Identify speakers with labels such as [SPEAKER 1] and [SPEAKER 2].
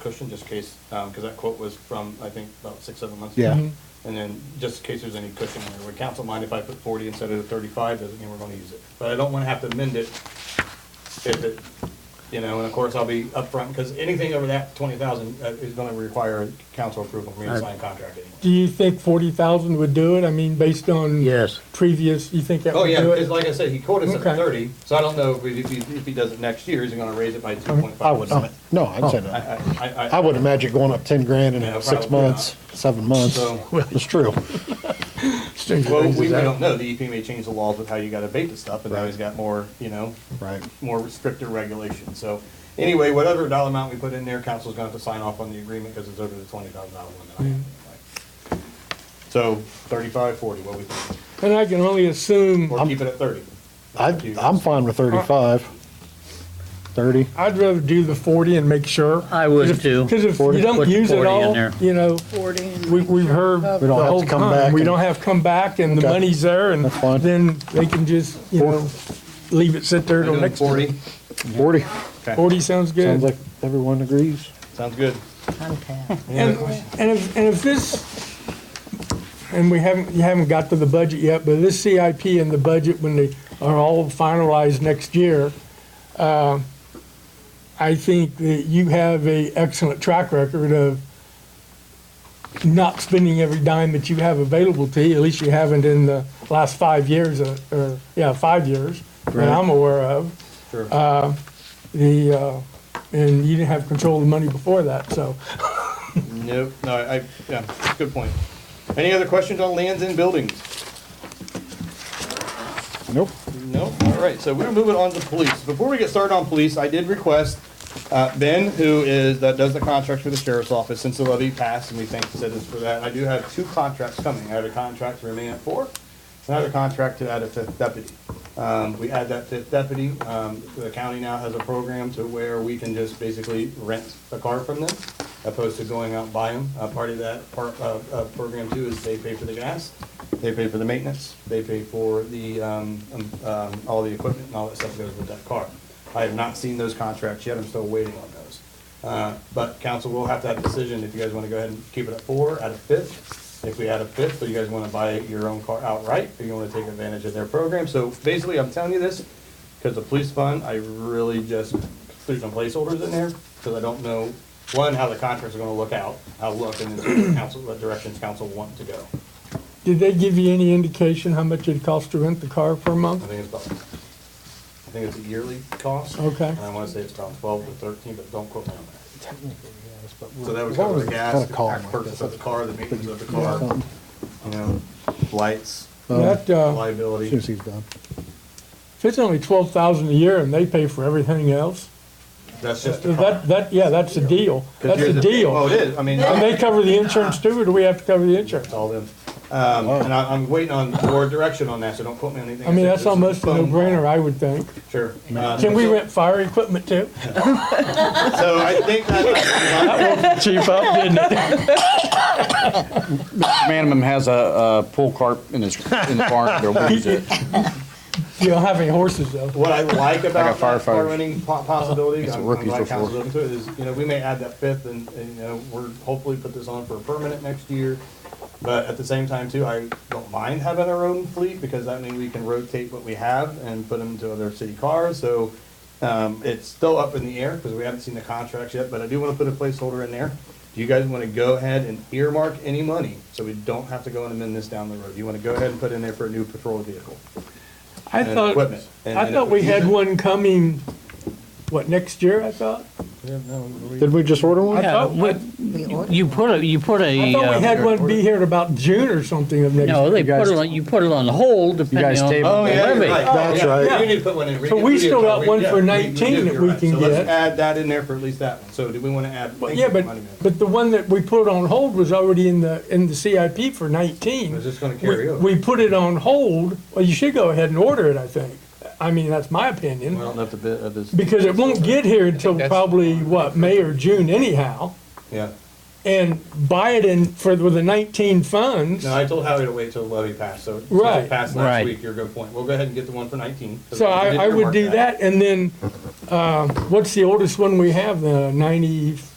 [SPEAKER 1] cushion, just in case, um 'cause cause that quote was from, I think, about six, seven months.
[SPEAKER 2] Yeah.
[SPEAKER 1] ago.
[SPEAKER 2] Mhm.
[SPEAKER 1] And then, just in case there's any cushion there, would council mind if I put forty instead of thirty-five, doesn't mean we're gonna use it, but I don't wanna have to amend it if it, you know, and of course, I'll be upfront, cause anything over that twenty thousand, uh, is gonna require council approval for me to sign a contract anyway.
[SPEAKER 2] Do you think forty thousand would do it? I mean, based on
[SPEAKER 3] Yes.
[SPEAKER 2] previous, you think that
[SPEAKER 1] Oh,
[SPEAKER 2] would
[SPEAKER 1] yeah,
[SPEAKER 2] do
[SPEAKER 1] because
[SPEAKER 2] it?
[SPEAKER 1] like I said, he quoted us at
[SPEAKER 2] Okay.
[SPEAKER 1] thirty, so I don't know if he, if he- if he does it next year, is he gonna raise it by two point five?
[SPEAKER 4] I wouldn't.
[SPEAKER 3] Oh, No, I'd say
[SPEAKER 1] I,
[SPEAKER 3] no.
[SPEAKER 1] I, I.
[SPEAKER 3] I would imagine going up ten grand
[SPEAKER 1] Yeah,
[SPEAKER 3] in six
[SPEAKER 1] probably
[SPEAKER 3] months, seven months.
[SPEAKER 1] So-
[SPEAKER 3] It's true.
[SPEAKER 1] Well, we we don't know, the EP may change the laws with how you gotta bait the stuff, and now
[SPEAKER 3] Right.
[SPEAKER 1] he's got more, you know,
[SPEAKER 3] Right.
[SPEAKER 1] more stricter regulations, so. Anyway, whatever dollar amount we put in there, council's gonna have to sign off on the agreement, because it's over the twenty thousand dollar limit. I have anyway. So thirty-five, forty, what we, think?
[SPEAKER 2] And I can only assume,
[SPEAKER 1] or keep it at thirty?
[SPEAKER 3] I, I'm fine with thirty-five. Thirty.
[SPEAKER 2] I'd rather do the forty and make sure.
[SPEAKER 4] I would too.
[SPEAKER 2] Because if you
[SPEAKER 3] 40,
[SPEAKER 2] don't
[SPEAKER 4] put
[SPEAKER 2] use it
[SPEAKER 4] 40 in
[SPEAKER 2] all,
[SPEAKER 4] there.
[SPEAKER 2] you know,
[SPEAKER 5] Forty and.
[SPEAKER 2] we, we've heard the
[SPEAKER 3] We don't have to
[SPEAKER 2] whole
[SPEAKER 3] come back
[SPEAKER 2] time. We
[SPEAKER 3] and-
[SPEAKER 2] don't have to come back and the
[SPEAKER 3] Okay.
[SPEAKER 2] money's there and
[SPEAKER 3] That's fine.
[SPEAKER 2] then they can just, you know, leave it sit there till
[SPEAKER 1] Doing
[SPEAKER 2] next.
[SPEAKER 1] Forty,
[SPEAKER 3] Forty.
[SPEAKER 1] okay,
[SPEAKER 2] Forty sounds good.
[SPEAKER 3] Sounds like everyone agrees.
[SPEAKER 1] sounds good.
[SPEAKER 2] And, and if, and if this, and we haven't, you haven't got to the budget yet, but this CIP and the budget, when they are all finalized next year, uh, I think that you have a excellent track record of not spending every dime that you have available to you, at least you haven't in the last five years, uh, or, yeah, five years, that I'm aware of
[SPEAKER 1] Sure.
[SPEAKER 2] the, uh, and you didn't have control of the money before that, so.
[SPEAKER 1] Nope, no, I, I- yeah, good point. Any other questions on lands and buildings?
[SPEAKER 3] Nope.
[SPEAKER 1] No, all right, so we're moving on to police. Before we get started on police, I did request uh, Ben, who is, that does the contracts for the sheriff's office, since the levy passed, and we thank the citizens for that. I do have two contracts coming. I have a contract to remain at four, and I have a contract to add a fifth deputy. Um, We add that fifth deputy, um, the county now has a program to where we can just basically rent a car from them, opposed to going out and buy them. Uh, Part of that, part of, of program two is they pay for the gas, they pay for the maintenance, they pay for the, um, um, um, all the equipment and all that stuff goes with that car. I have not seen those contracts yet, I'm still waiting on those. Uh, But council will have to have a decision if you guys want to go ahead and keep it at four, at a fifth. If we add a fifth, or you guys want to buy your own car outright, or you want to take advantage of their program. So basically, I'm telling you this, because the police fund, I really just threw some placeholders in there, because I don't know, one, how the contracts are going to look out, how look, and then what council, what directions council want to go.
[SPEAKER 2] Did they give you any indication how much it costs to rent the car per
[SPEAKER 1] I
[SPEAKER 2] month?
[SPEAKER 1] think it's about, I think it's a yearly cost.
[SPEAKER 2] Okay.
[SPEAKER 1] And I want to say it's about twelve to thirteen, but don't quote me on that. So that would
[SPEAKER 3] As long
[SPEAKER 1] cover
[SPEAKER 3] as
[SPEAKER 1] the
[SPEAKER 3] it's
[SPEAKER 1] gas,
[SPEAKER 3] kinda
[SPEAKER 1] the
[SPEAKER 3] calm like
[SPEAKER 1] purchase
[SPEAKER 3] this,
[SPEAKER 1] of the car, the maintenance of the car,
[SPEAKER 3] Something.
[SPEAKER 1] you
[SPEAKER 3] Oh,
[SPEAKER 1] know, lights,
[SPEAKER 2] That, uh,
[SPEAKER 3] As soon
[SPEAKER 1] liability.
[SPEAKER 3] as he's done.
[SPEAKER 2] if it's only twelve thousand a year and they pay for everything else,
[SPEAKER 1] That's just the car.
[SPEAKER 2] that, that, yeah, that's a deal.
[SPEAKER 1] 'Cause
[SPEAKER 2] That's
[SPEAKER 1] here's
[SPEAKER 2] a
[SPEAKER 1] the- Oh,
[SPEAKER 2] deal.
[SPEAKER 1] it is, I mean.
[SPEAKER 2] And they cover the insurance too, or do we have to cover the insurance?
[SPEAKER 1] It's all them. Um, and I, I'm waiting on more direction on that, so don't quote me on anything.
[SPEAKER 2] I mean,
[SPEAKER 1] said.
[SPEAKER 2] that's
[SPEAKER 1] This is a
[SPEAKER 2] almost a
[SPEAKER 1] phone call.
[SPEAKER 2] no-brainer, I would think.
[SPEAKER 1] Sure. Uh,
[SPEAKER 2] Can we rent fire equipment too?
[SPEAKER 1] So I think that,
[SPEAKER 2] Cheap up, didn't it?
[SPEAKER 6] Manningham has a, a pool cart in his, in the barn, they'll use it.
[SPEAKER 2] You don't have any horses though.
[SPEAKER 1] what I like about
[SPEAKER 6] I
[SPEAKER 1] that
[SPEAKER 6] got
[SPEAKER 1] car
[SPEAKER 6] firefighters.
[SPEAKER 1] renting po- possibility,
[SPEAKER 6] That's
[SPEAKER 1] I'm
[SPEAKER 6] what
[SPEAKER 1] I'm
[SPEAKER 6] rookies
[SPEAKER 1] glad
[SPEAKER 6] look for.
[SPEAKER 1] council's open to it, is, you know, we may add that fifth and, and, you know, we're hopefully put this on for a permanent next year. But at the same time too, I don't mind having our own fleet because that means we can rotate what we have and put them to other city cars, so. Um, it's still up in the air because we haven't seen the contracts yet, but I do want to put a placeholder in there. Do you guys want to go ahead and earmark any money so we don't have to go and amend this down the road? You want to go ahead and put in there for a new patrol vehicle?
[SPEAKER 2] I
[SPEAKER 1] and
[SPEAKER 2] thought,
[SPEAKER 1] equipment, and-
[SPEAKER 2] I
[SPEAKER 1] and
[SPEAKER 2] thought we had
[SPEAKER 1] equipment.
[SPEAKER 2] one coming, what, next year, I thought?
[SPEAKER 3] Did we just order one?
[SPEAKER 2] I
[SPEAKER 4] Yeah,
[SPEAKER 2] thought we-
[SPEAKER 4] we- You put a, you put
[SPEAKER 2] I
[SPEAKER 4] a,
[SPEAKER 2] thought we
[SPEAKER 4] uh,
[SPEAKER 2] had one be here in about June or something of next year.
[SPEAKER 4] no, they put it on, you put it on hold depending
[SPEAKER 3] guys
[SPEAKER 4] on the
[SPEAKER 3] tabled Oh,
[SPEAKER 1] you're right.
[SPEAKER 4] levy.
[SPEAKER 3] That's
[SPEAKER 1] Yeah,
[SPEAKER 3] right.
[SPEAKER 1] You need to put one in.
[SPEAKER 2] So we still got one for 19 that we can
[SPEAKER 1] So let's
[SPEAKER 2] get.
[SPEAKER 1] add that in there for at least that one. So do we want to add?
[SPEAKER 2] Well, Yeah, but, but the one that we put on hold was already in the, in the CIP for nineteen.
[SPEAKER 1] Is this gonna
[SPEAKER 2] We-
[SPEAKER 1] carry over?
[SPEAKER 2] We put it on hold, well, you should go ahead and order it, I think. I mean, that's my opinion,
[SPEAKER 1] don't know if the bit of this.
[SPEAKER 2] because it won't get here until probably, what, May or June anyhow.
[SPEAKER 1] Yeah.
[SPEAKER 2] And buy it in for, with the nineteen funds,
[SPEAKER 1] No, I told Howie to wait till the levy passed, so. since it
[SPEAKER 2] Right.
[SPEAKER 1] Passed last
[SPEAKER 4] Right.
[SPEAKER 1] week, you're a good point. We'll go ahead and get the one for nineteen. 'cause
[SPEAKER 2] so
[SPEAKER 1] we
[SPEAKER 2] I,
[SPEAKER 1] did
[SPEAKER 2] I would
[SPEAKER 1] earmark
[SPEAKER 2] do that, and then, uh, what's the oldest one we have, the ninety,